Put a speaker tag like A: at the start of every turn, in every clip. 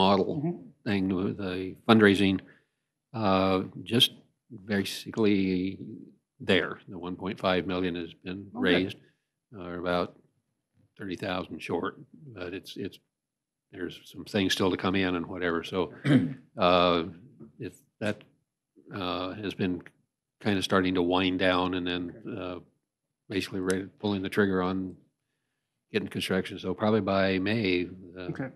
A: remodel
B: Mhm.
A: thing with the fundraising, uh, just basically there. The 1.5 million has been
B: Okay.
A: raised, or about 30,000 short, but it's, it's, there's some things still to come in and whatever, so uh, if that uh, has been kind of starting to wind down and then uh, basically ready, pulling the trigger on getting construction, so probably by May, the
B: Okay.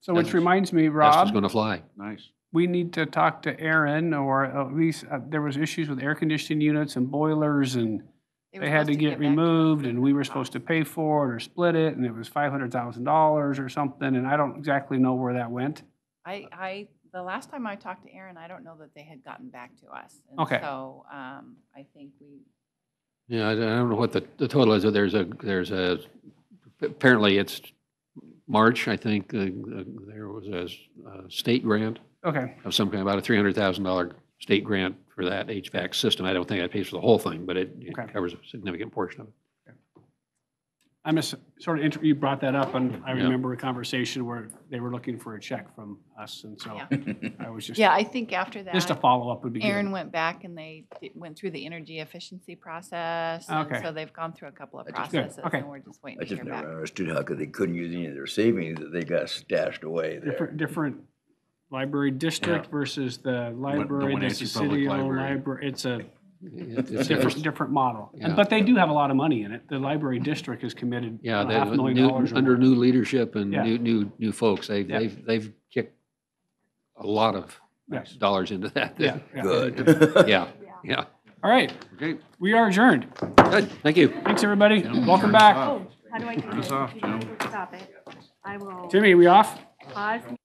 B: So which
A: That's-
B: reminds me,
A: That's
B: Rob,
A: going to fly.
C: Nice.
B: we need to talk to Aaron, or at least, uh, there was issues with air conditioning units and boilers, and
D: were
B: they had
D: supposed
B: to get
D: back us
B: removed,
D: with
B: and
D: the
B: we were supposed to
D: cost.
B: pay for it or split it, and it was $500,000 or something, and I don't exactly know where that went.
D: I, I, the last time I talked to Aaron, I don't know that they had gotten back to us. And
B: Okay.
D: So, um, I think we,
A: Yeah, I don't- I don't know what the, the total is, but there's a, there's a, apparently it's March, I think, uh, uh, there was a s- a state grant
B: Okay,
A: of some kind, about a $300,000 state grant for that HVAC system. I don't think that pays for the whole thing, but it it
B: Okay.
A: covers a significant portion of it.
B: I miss, sort of, inter- you brought that up, and I
A: Yeah.
B: remember a conversation where they were looking for a check from us, and so I was just,
D: yeah, I think after
B: just a
D: that,
B: follow-up would be good.
D: Aaron went back and they did- went through the energy efficiency process. and
B: Okay.
D: So they've gone through a couple of
E: Good,
D: processes
B: okay.
D: and we're just waiting
E: I
D: to
E: just
D: hear back.
E: never understood how could they couldn't use any of their savings that they got stashed away there.
B: Different, different library district versus the library, that's
C: Wenatchee
B: the
C: Public
B: city-owned
C: Library.
B: library, it's a
A: It- it's-
B: different, different model. And-
A: Yeah.
B: But they do have a lot of money in it, the library district is committed
A: Yeah,
B: on a
A: they-
B: half million
A: new-
B: dollars or
A: under
B: more.
A: new leadership and
B: Yeah.
A: new, new, new folks, they've,
B: Yeah.
A: they've, they've kicked a lot of
B: Yes.
A: dollars into that.
B: Yeah, yeah.
E: Good.
A: Yeah, yeah.
B: All right,
C: Okay.
B: we are adjourned,
A: Good, thank you.
B: thanks, everybody, welcome back.
C: Stop.
F: Oh, how do I do
C: Turn us
F: this?
C: off,
F: You guys
C: Joe.
F: will Stop it. I will
B: Timmy, we off?
F: pause.